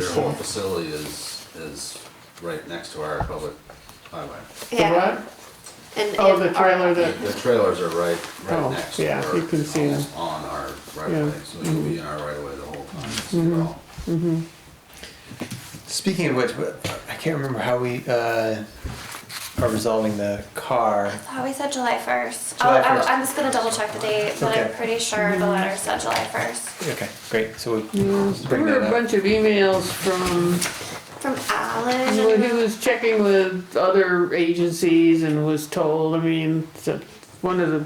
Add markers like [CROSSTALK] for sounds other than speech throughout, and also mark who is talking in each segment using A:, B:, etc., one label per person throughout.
A: Their whole
B: Baseball.
A: facility is, is right next to our public highway.
B: The
C: Yeah,
B: what?
C: and.
B: Oh,
C: and
B: the
C: our-
B: trailer that,
A: The trailers are right,
B: Oh,
A: right next to
B: yeah,
A: our,
B: you can see them.
A: almost on our right of way,
B: Yeah. mm-hmm.
A: so you'll be in our right of way the whole time. It's all-
D: Speaking of which, I can't remember how we uh, are resolving the car.
C: Oh, we said July first.
D: July
C: I,
D: 1st.
C: I'm just gonna double check the date, but I'm
D: Okay.
C: pretty sure
B: Mm-hmm.
C: the letter said July first.
D: Okay, great. So we'll
B: there
D: bring
B: were a
D: that up.
B: bunch of emails from,
C: From Alan.
B: well,
C: and-
B: he was checking with other agencies and was told, I mean, so- one of the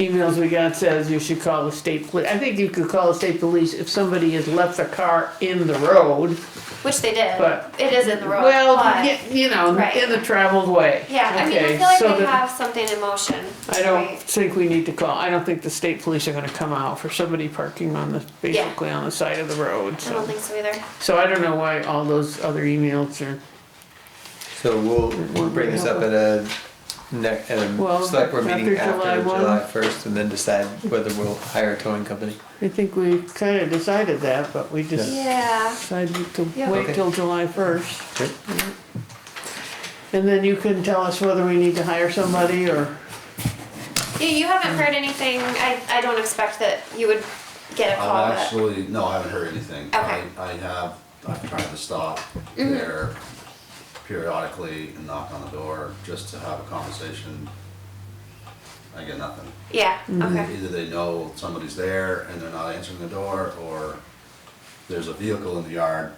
B: emails we got says you should call the state police. I think you could call the state police if somebody has left the car in the road.
C: Which they did.
B: But-
C: It is in the road,
B: Well,
C: but-
B: y- you know,
C: Right.
B: in the traveled way.
C: Yeah, I mean, I
B: Okay,
C: feel like
B: so
C: they
B: that-
C: have something in motion.
B: I don't
C: right?
B: think we need to call, I don't think the state police are gonna come out for somebody parking on the, basically on the side of the road,
C: I
B: so.
C: don't think so either.
B: So I don't know why all those other emails are,
D: So we'll we'll bring this up at a ne- at a
B: Well,
D: select board
B: after
D: meeting after
B: July one.
D: July first, and then decide whether we'll hire a towing company.
B: I think we kinda decided that, but we just
C: Yeah,
B: decided to
C: Yeah.
B: wait
D: Okay.
B: till July first.
D: Great.
B: And then you can tell us whether we need to hire somebody or,
C: yeah, you haven't heard anything, I, I don't expect that you would get a call,
A: I've
C: but,
A: actually, no, I haven't heard anything.
C: Okay.
A: I, I have, I've tried to stop there periodically and knock on the door just to have a conversation. I get nothing.
C: yeah,
B: Mm-hmm.
C: okay,
A: Either they know somebody's there and they're not answering the door, or there's a vehicle in the yard,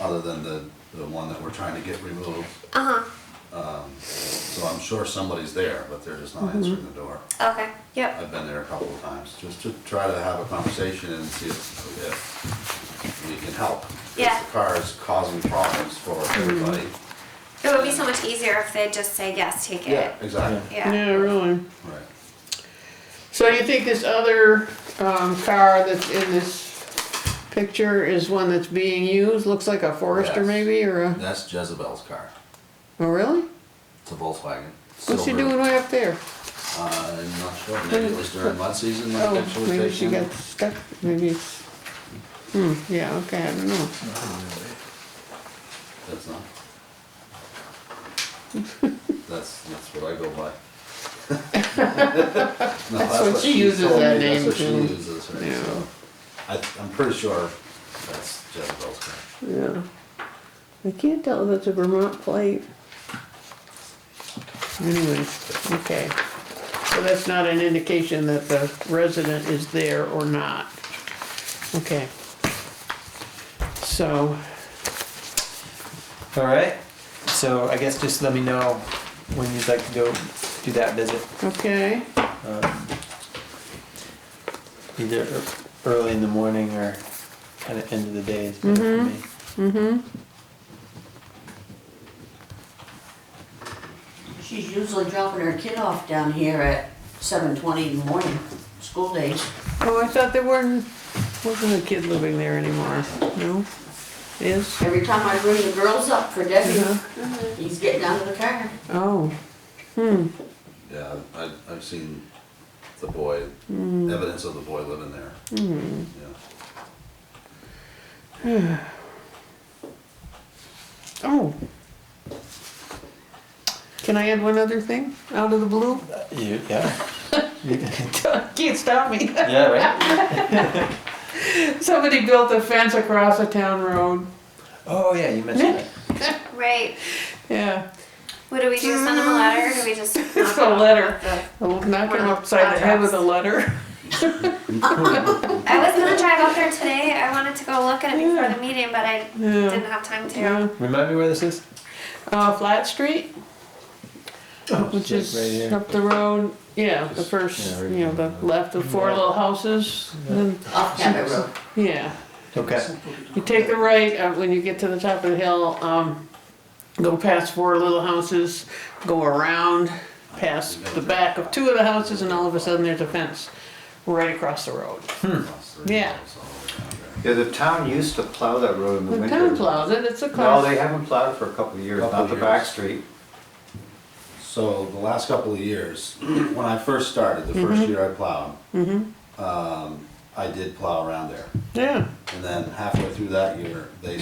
A: other than the, the one that we're trying to get removed. Um,
C: uh-huh,
A: So I'm sure somebody's there, but they're just not answering the door.
C: okay, yep,
A: I've been there a couple of times, just to try to have a conversation and see if, if we can help. 'Cause
C: Yeah.
A: The car is causing problems for everybody.
C: it would be so much easier if they'd just say, yes, take it,
A: Yeah, exactly,
C: yeah.
B: yeah, really.
A: right.
B: So you think this other, um, car that's in this picture is one that's being used, looks like a Forester
A: Yes.
B: maybe, or a,
A: That's Jezebel's car,
B: oh, really?
A: it's a Volkswagen.
B: What's she
A: silver.
B: doing way up there?
A: Uh, I'm not sure, maybe it was during mud season, like
B: Oh,
A: actually
B: maybe she
A: taken.
B: got stuck, maybe it's, hmm, yeah, okay, I don't know. [LAUGHS]
A: That's not. That's, that's what I
B: [LAUGHS]
A: go by. No, That's
B: what she uses
A: told
B: that
A: me,
B: name
A: That's what she
B: too.
A: uses, right,
B: Yeah.
A: so. I, I'm pretty sure that's Jezebel's car.
B: Yeah. I can't tell if it's a Vermont plate. Anyways, okay. So that's not an indication that the resident is there or not. Okay. So,
D: All right. So I guess just let me know when you'd like to go do that visit.
B: okay,
D: um, either ear- early in the morning or kind of end of the day is better
B: Mm-hmm.
D: for me.
E: She's usually dropping her kid off down here at seven twenty in the morning, school days.
B: oh, I thought there weren't, wasn't a kid living there anymore, no? Is?
E: Every time I bring the girls up for Debbie,
B: Yeah.
E: he's getting out of the car.
B: Oh, hmm,
A: Yeah, I, I've seen the boy,
B: Mm.
A: evidence of the boy living there.
B: Mm-hmm.
A: Yeah.
B: oh. Can I add one other thing, out of the blue?
D: Uh, You, yeah.
B: [LAUGHS] Can't stop me.
D: [LAUGHS]
B: [LAUGHS]
D: yeah, right?
B: Somebody built a fence across a town road.
D: Oh, yeah, you mentioned that.
C: Right,
B: Yeah,
C: what do we do, send them a letter, or do
B: [LAUGHS]
C: we just?
B: it's a letter. I'll knock him
C: Wow.
B: upside the head with a letter.
C: I was gonna drive up there today, I wanted to go look at it before
B: Yeah.
C: the meeting, but I didn't
B: [LAUGHS] Yeah.
C: have time to.
B: Yeah.
D: Remind me where this is?
B: Uh, Flat Street, which
D: It's like
B: is
D: Oh, right
B: up the road, yeah, the first,
D: Yeah,
B: you
D: right
B: know, the left of four little houses. and
E: Off Cabot Road.
B: then- Yeah,
D: here. Okay.
B: you take the right, uh, when you get to the top of the hill, um, go past four little houses, go around, past the back of two of the houses, and all of a sudden there's a fence right across the road.
A: Across the-
B: Yeah.
A: it's all the way down there.
F: Yeah, the town used to plow that road in the
B: The
F: winter.
B: town plows it, it's a
F: No,
B: class.
F: they haven't plowed for a couple of years,
A: Couple
F: not the back
A: years.
F: street.
A: So the last couple of years, [CLEARS THROAT] when I first started, the first year I plowed, um, I did plow around there.
B: Yeah.
A: And then halfway through that year, they